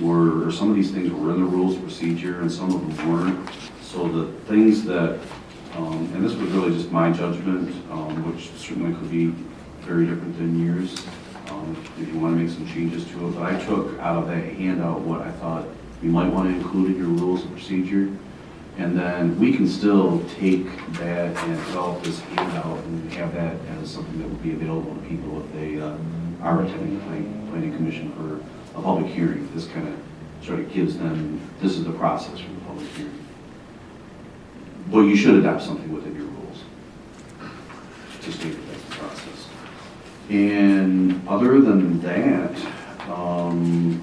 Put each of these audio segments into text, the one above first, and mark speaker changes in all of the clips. Speaker 1: were, or some of these things were in the rules of procedure and some of them weren't. So the things that, um, and this was really just my judgment, um, which certainly could be very different than yours, um, if you want to make some changes to it. But I took out of that handout what I thought you might want to include in your rules of procedure. And then we can still take that and develop this handout and have that as something that would be available to people if they uh, are attending the planning, planning commission for a public hearing. This kind of sort of gives them, this is the process for the public hearing. But you should adopt something within your rules to state that that's the process. And other than that, um,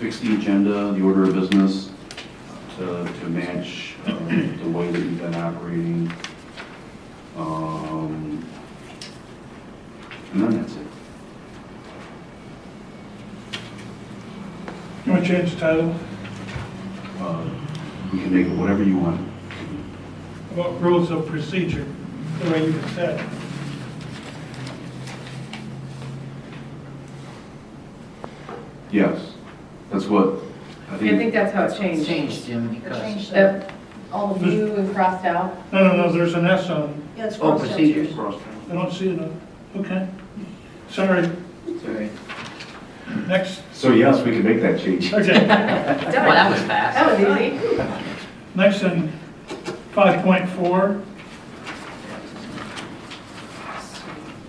Speaker 1: fix the agenda, the order of business to, to match um, the way that you've been operating. Um, And then that's it.
Speaker 2: You want to change the title?
Speaker 1: Uh, You can make it whatever you want.
Speaker 2: About rules of procedure, the way you just said.
Speaker 1: Yes, that's what, I
Speaker 3: I think
Speaker 1: think,
Speaker 3: that's how it changed.
Speaker 4: Changed, Jim, because,
Speaker 5: Change the,
Speaker 3: The, all of you and crossed out.
Speaker 2: No, no, no, there's an S on
Speaker 5: yeah, it's
Speaker 4: oh,
Speaker 5: crossed out.
Speaker 4: procedures,
Speaker 2: it. I don't see it on, okay. Sorry,
Speaker 4: sorry.
Speaker 2: next,
Speaker 1: so yes, we can make that change.
Speaker 2: okay.
Speaker 3: Done.
Speaker 4: Well, that was fast.
Speaker 3: That was easy.
Speaker 2: Next in 5.4,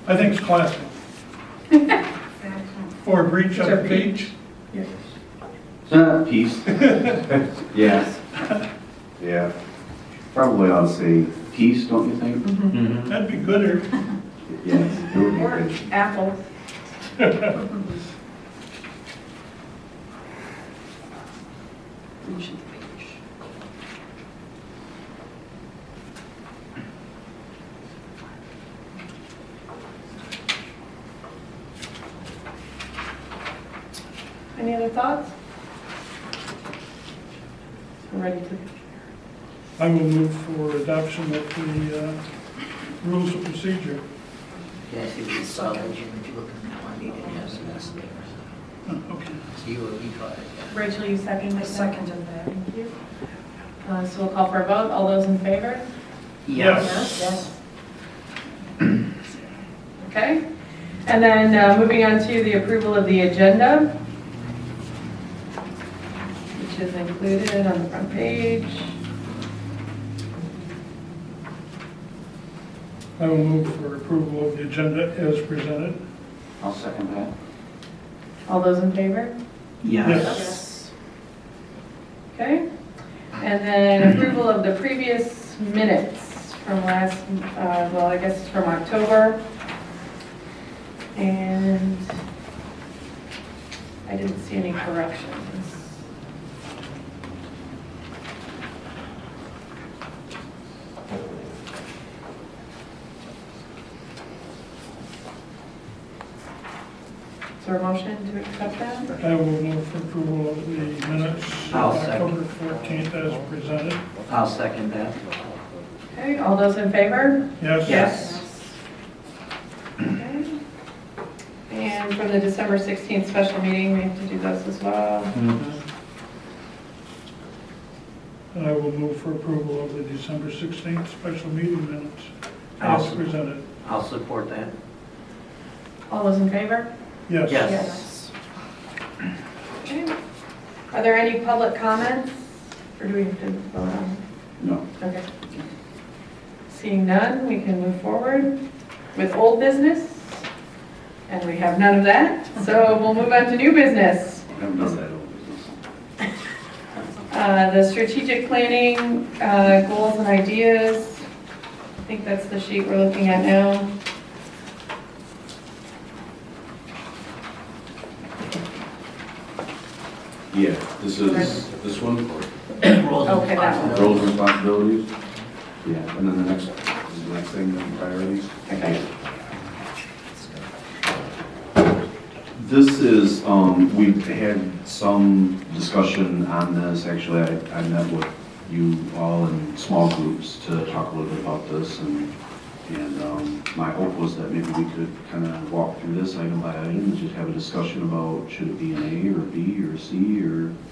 Speaker 2: I think it's classic. Or breach of the beach.
Speaker 1: Peace. Yes. Yeah. Probably I'll say peace, don't you think?
Speaker 3: Mm-hmm.
Speaker 4: Mhm.
Speaker 2: that'd be gooder.
Speaker 1: Yes. it would be
Speaker 3: Or
Speaker 1: good.
Speaker 3: apples.
Speaker 4: Breach of the page.
Speaker 3: Any other thoughts? I'm ready to,
Speaker 2: I will move for adoption of the uh, rules of procedure.
Speaker 4: Yeah, if you saw that, Jim, if you look at that one, you didn't have some S there.
Speaker 2: Oh, Okay.
Speaker 4: So you, you caught it, yeah.
Speaker 3: Rachel, you second
Speaker 5: I
Speaker 3: the second.
Speaker 5: seconded that.
Speaker 3: Uh, so we'll call for a vote. All those in favor?
Speaker 2: Yes.
Speaker 5: Yes.
Speaker 3: Okay. And then, uh, moving on to the approval of the agenda, which is included on the front page.
Speaker 2: I will move for approval of the agenda as presented.
Speaker 1: I'll second that.
Speaker 3: All those in favor?
Speaker 5: Yes.
Speaker 3: Okay, and then approval of the previous minutes from last, uh, well, I guess it's from October. And I didn't see any corrections. Is there a motion to accept that?
Speaker 2: I will move for approval of the minutes, of
Speaker 4: I'll second.
Speaker 2: October 14th as presented.
Speaker 4: I'll second that.
Speaker 3: Okay, all those in favor?
Speaker 2: Yes?
Speaker 4: Yes.
Speaker 3: Okay. And for the December 16th special meeting, we have to do those as well.
Speaker 2: And I will move for approval of the December 16th special meeting minutes as
Speaker 4: Awesome.
Speaker 2: presented.
Speaker 4: I'll support that.
Speaker 3: All those in favor?
Speaker 2: Yes?
Speaker 4: Yes.
Speaker 3: Yes. Okay. Are there any public comments? Or do we have to vote on?
Speaker 1: No.
Speaker 3: Okay. Seeing none, we can move forward with old business. And we have none of that, so we'll move on to new business.
Speaker 1: I haven't done that over business.
Speaker 3: Uh, The strategic planning, uh, goals and ideas, I think that's the sheet we're looking at now.
Speaker 1: Yeah, this is, this one,
Speaker 4: Roles and
Speaker 3: Okay, that one.
Speaker 1: roles and responsibilities. Yeah, and then the next, this is the next thing, the priorities.
Speaker 3: Okay.
Speaker 1: This is, um, we've had some discussion on this, actually, I, I met with you all in small groups to talk a little bit about this, and And um, my hope was that maybe we could kind of walk through this item by item, and just have a discussion about should it be an A or a B or a C or